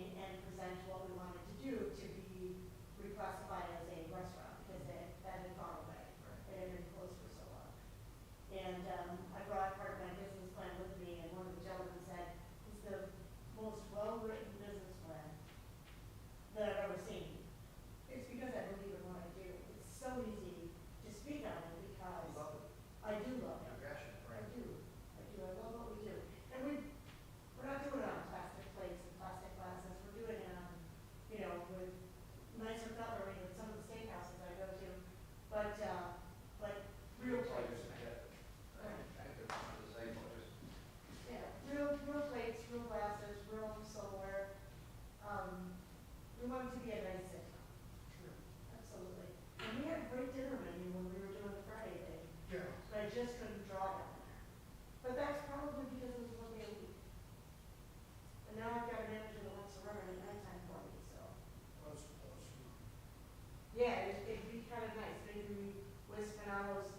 present what we wanted to do to be reclassified as a restaurant, because that, that had gone away. It had been closed for so long. And, um, I brought part of my business plan with me, and one of the gentlemen said, it's the most well-written business plan that I've ever seen. It's because I believe in what I do. It's so easy to speak on it because I do love it. I do, I do, I love what we do. And we, we're not doing it on plastic plates and plastic glasses, we're doing it on, you know, with nicer cutlery than some of the steakhouses I go to, but, uh, like, real plates. Yeah, real, real plates, real glasses, real silverware. Um, we want it to be a nice sitcom. Absolutely. And we had a great dinner menu when we were doing the Friday thing, but I just couldn't draw it on there. But that's probably because it was one day a week. And now I've got a manager that wants to run it at nighttime for me, so. Yeah, it'd, it'd be kind of nice, maybe we, Wispano's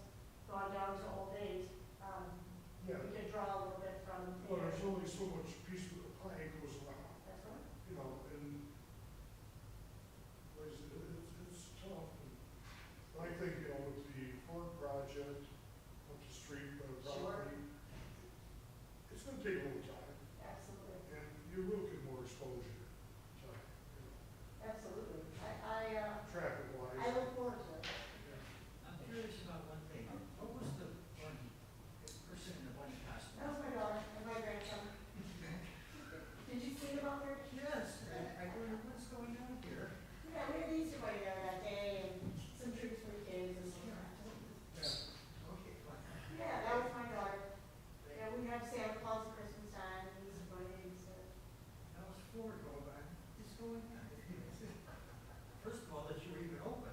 gone down to old age, um, Yeah, Oh, we could draw a little bit from well, there. there's only so much piece of the pie goes around, That's right. you know, and like I said, it's, it's tough. And I think, you know, with the Ford project, up the street, by the Sure. property, it's gonna take a little time, Absolutely. and you will get more exposure, time, you know, Absolutely. I, I, uh, traffic I wise. look forward to it. I'm curious about one thing. What was the bunny, the person in the bunny That was costume? my daughter and my grandson. Did you see them out there? Yes, I, I wonder what's going on here. Yeah, we had the Easter Bunny there that day uh, and some treats for the kids and some. Okay, fine. Yeah, that was my daughter. Yeah, we have Santa Claus at Christmas time and Easter Bunny and stuff. That was Florida, but what's going on? First of all, that you were even open.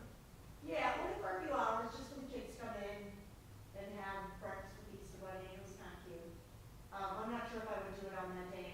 Yeah, only for a few hours, just when the kids come in and have breakfast with Easter Bunny. It was not cute. Um, I'm not sure if I would do it on that day Oh, Uh, Uh-huh. Oh, uh, uh,